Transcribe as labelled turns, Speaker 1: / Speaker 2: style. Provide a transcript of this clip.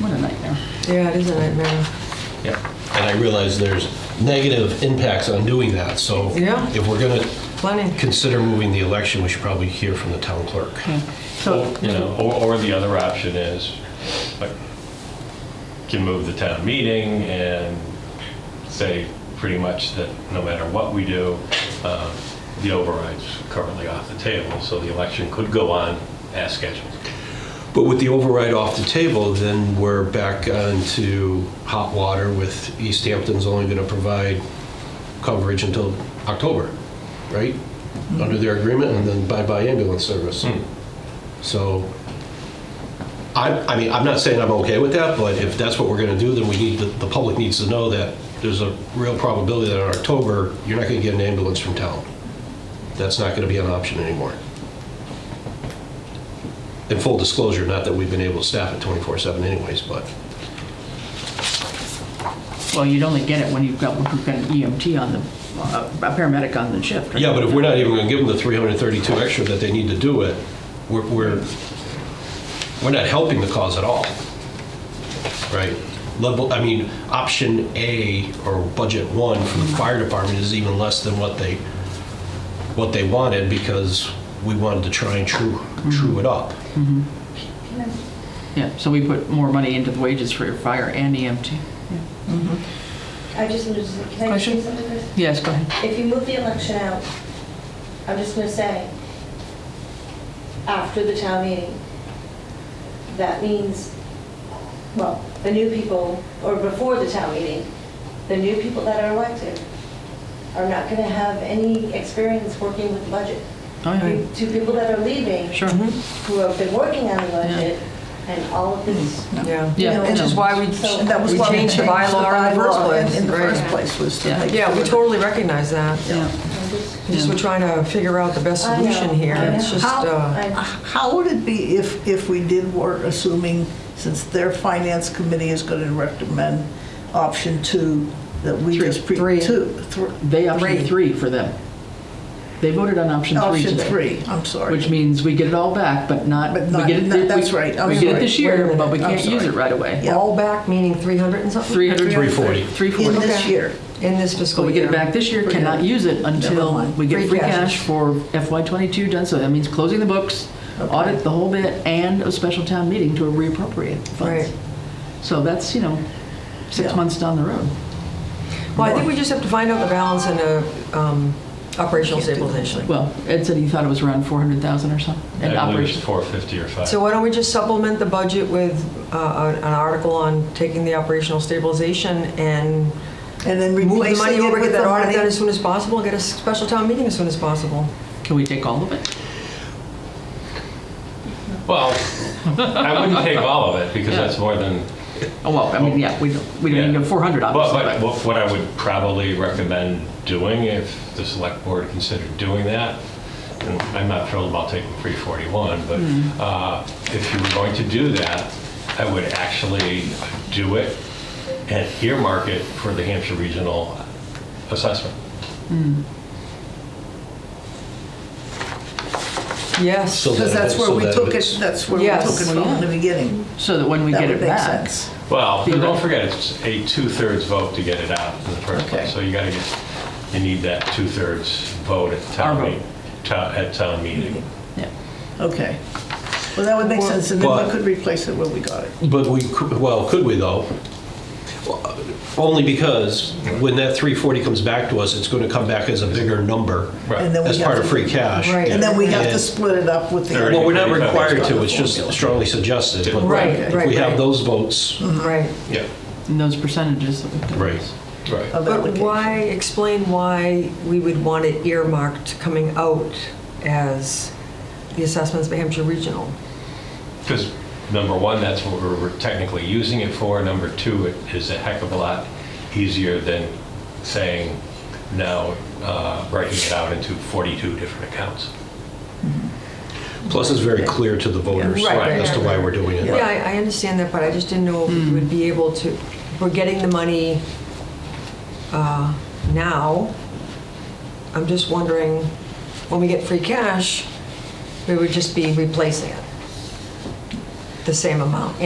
Speaker 1: What a nightmare.
Speaker 2: Yeah, it is a nightmare.
Speaker 3: Yeah, and I realize there's negative impacts on doing that, so
Speaker 2: Yeah.
Speaker 3: if we're going to
Speaker 2: Plenty.
Speaker 3: consider moving the election, we should probably hear from the town clerk.
Speaker 1: Okay,
Speaker 4: Or,
Speaker 1: so,
Speaker 4: you know, or, or the other option is, like, can move the town meeting and say pretty much that no matter what we do, uh, the override's currently off the table, so the election could go on as scheduled.
Speaker 3: But with the override off the table, then we're back onto hot water with East Hampton's only going to provide coverage until October, right? Under their agreement, and then bye-bye ambulance service. So, I, I mean, I'm not saying I'm okay with that, but if that's what we're going to do, then we need, the the public needs to know that there's a real probability that in October, you're not going to get an ambulance from town. That's not going to be an option anymore. In full disclosure, not that we've been able to staff it 24/7 anyways, but
Speaker 1: well, you'd only get it when you've got, you've got an EMT on the, uh, a paramedic on the shift. right?
Speaker 3: Yeah, but if we're not even going to give them the 332 extra that they need to do it, we're, we're, we're not helping the cause at all. Right? Level, I mean, option A or budget one for the fire department is even less than what they, what they wanted because we wanted to try and true, true it up.
Speaker 1: Yeah, so we put more money into the wages for your fire and E EMT.
Speaker 5: I just wanted to, can I just
Speaker 1: Question?
Speaker 5: say something first?
Speaker 1: Yes, go ahead.
Speaker 5: If you move the election out, I'm just gonna say, after the town meeting, that means, well, the new people, or before the town meeting, the new people that are elected are not gonna have any experience working with budget.
Speaker 1: Oh, yeah.
Speaker 5: You- Two people that are leaving,
Speaker 1: Sure.
Speaker 5: who have been working on the budget, and all of this,
Speaker 1: Mm.
Speaker 2: Yeah.
Speaker 1: Yeah,
Speaker 6: Which is
Speaker 1: no.
Speaker 6: why we,
Speaker 5: So-
Speaker 6: that was
Speaker 2: We
Speaker 6: why we
Speaker 2: changed
Speaker 6: changed
Speaker 2: the
Speaker 6: the
Speaker 2: bylaw
Speaker 6: bylaw
Speaker 2: in the first place,
Speaker 6: in the
Speaker 2: right.
Speaker 6: first place was to
Speaker 1: Yeah.
Speaker 6: make.
Speaker 2: Yeah, we
Speaker 6: sure
Speaker 2: totally recognize that.
Speaker 1: Yeah.
Speaker 5: I'm just-
Speaker 2: Just we're trying to figure out the best
Speaker 5: I know,
Speaker 2: solution here.
Speaker 5: I
Speaker 2: It's
Speaker 5: know.
Speaker 2: just,
Speaker 6: How-
Speaker 2: uh,
Speaker 5: I-
Speaker 6: How would it be if, if we did work, assuming, since their finance committee is going to recommend option two, that we
Speaker 1: Three.
Speaker 6: just pre,
Speaker 2: Three.
Speaker 6: two, thr-
Speaker 1: They option
Speaker 2: Three.
Speaker 1: three for them. They voted on option three
Speaker 6: option
Speaker 1: today.
Speaker 6: three, I'm
Speaker 1: Which
Speaker 6: sorry.
Speaker 1: means we get it all back, but not,
Speaker 6: But
Speaker 1: we
Speaker 6: not-
Speaker 1: get it,
Speaker 6: not-
Speaker 1: we-
Speaker 6: that's right, I'm
Speaker 1: we get it
Speaker 6: sorry.
Speaker 1: this
Speaker 2: Wait a
Speaker 1: year,
Speaker 2: minute,
Speaker 1: but we
Speaker 6: I'm
Speaker 1: can't use
Speaker 6: sorry.
Speaker 1: it right away.
Speaker 6: Yeah.
Speaker 2: all back, meaning 300 and something?
Speaker 1: 300.
Speaker 3: 340.
Speaker 1: 340.
Speaker 6: In this
Speaker 2: Okay.
Speaker 6: year.
Speaker 2: In this
Speaker 1: So
Speaker 2: fiscal
Speaker 1: we
Speaker 2: year.
Speaker 1: get it back this year,
Speaker 6: Forget
Speaker 1: cannot
Speaker 6: it.
Speaker 1: use it
Speaker 6: Never
Speaker 1: until
Speaker 6: mind.
Speaker 1: we get
Speaker 2: Free
Speaker 1: free
Speaker 2: cash.
Speaker 1: cash for FY '22 done, so that means closing the books, audit the whole bit, and a special town meeting to reappropriate funds.
Speaker 2: Right.
Speaker 1: So that's, you know, six
Speaker 6: Yeah.
Speaker 1: months down the road.
Speaker 2: Well, I think we just have to find out the balance in a um, operational stabilization.
Speaker 1: Well, Ed said he thought it was around 400,000 or something. in
Speaker 4: I believe it's
Speaker 1: operation.
Speaker 4: 450 or 5.
Speaker 2: So why don't we just supplement the budget with uh, an article on taking the operational stabilization and
Speaker 6: And then
Speaker 2: move the money
Speaker 6: replacing it
Speaker 2: over,
Speaker 6: with
Speaker 2: get
Speaker 6: the
Speaker 2: that audit
Speaker 6: money.
Speaker 2: done as soon as possible, and get a special town meeting as soon as possible.
Speaker 1: Can we take all of it?
Speaker 4: Well, I wouldn't take all of it, because
Speaker 1: Yeah.
Speaker 4: that's more than
Speaker 1: Oh, well, I mean, yeah, we don't, we don't
Speaker 4: Yeah.
Speaker 1: even have 400,
Speaker 4: But- But
Speaker 1: obviously.
Speaker 4: what- what I would probably recommend doing, if the select board considered doing that, and I'm not thrilled about taking 341,
Speaker 1: Hmm.
Speaker 4: but uh, if you were going to do that, I would actually do it and earmark it for the Hampshire Regional Assessment.
Speaker 2: Yes.
Speaker 3: So
Speaker 6: Because
Speaker 3: that-
Speaker 6: that's where
Speaker 3: so
Speaker 6: we
Speaker 3: that
Speaker 6: took
Speaker 3: it's-
Speaker 6: it, that's where we
Speaker 2: Yes.
Speaker 6: took it from in the beginning.
Speaker 1: but- So that when we
Speaker 6: That
Speaker 1: get
Speaker 6: would
Speaker 1: it
Speaker 6: make
Speaker 1: back.
Speaker 6: sense.
Speaker 4: Well,
Speaker 1: Be
Speaker 4: don't
Speaker 1: right.
Speaker 4: forget, it's a two-thirds vote to get it out in the first
Speaker 6: Okay.
Speaker 4: place. So you gotta get, you need that two-thirds vote at
Speaker 1: Our
Speaker 4: town
Speaker 1: vote. Mm-hmm.
Speaker 4: meeting, at town meeting.
Speaker 1: Yeah.
Speaker 6: Okay. Well, that would make sense, and then
Speaker 3: But-
Speaker 6: we could replace it where we got it.
Speaker 3: But we, could- well, could we though? Well, Only because when that 340 comes back to us, it's going to come back as a bigger number.
Speaker 4: Right.
Speaker 6: And then we
Speaker 3: As
Speaker 6: have
Speaker 3: part of
Speaker 6: to-
Speaker 3: free cash.
Speaker 2: Right.
Speaker 6: And then we have to
Speaker 3: And-
Speaker 6: split it up with the.
Speaker 4: Thirty.
Speaker 3: Well, we're not
Speaker 4: Thirty-five.
Speaker 3: required to, it's just strongly suggested. but
Speaker 2: Right,
Speaker 3: If
Speaker 2: right,
Speaker 3: we have
Speaker 2: right.
Speaker 3: those votes.
Speaker 2: Right.
Speaker 3: Yeah.
Speaker 1: And those percentages. that we could-
Speaker 3: Right, right.
Speaker 6: of
Speaker 2: But
Speaker 6: application.
Speaker 2: why, explain why we would want it earmarked coming out as the assessments by Hampshire Regional?
Speaker 4: Because number one, that's what we're we're technically using it for. Number two, it is a heck of a lot easier than saying now, uh, breaking it out into 42 different accounts.
Speaker 3: Plus, it's very clear to the voters
Speaker 2: Right,
Speaker 4: right,
Speaker 3: as to
Speaker 2: right,
Speaker 3: why
Speaker 2: right.
Speaker 3: we're doing it.
Speaker 2: Yeah, I I understand that, but I just didn't know if we would be able to, we're getting the money uh, now. I'm just wondering, when we get free cash, we would just be replacing it, the same amount.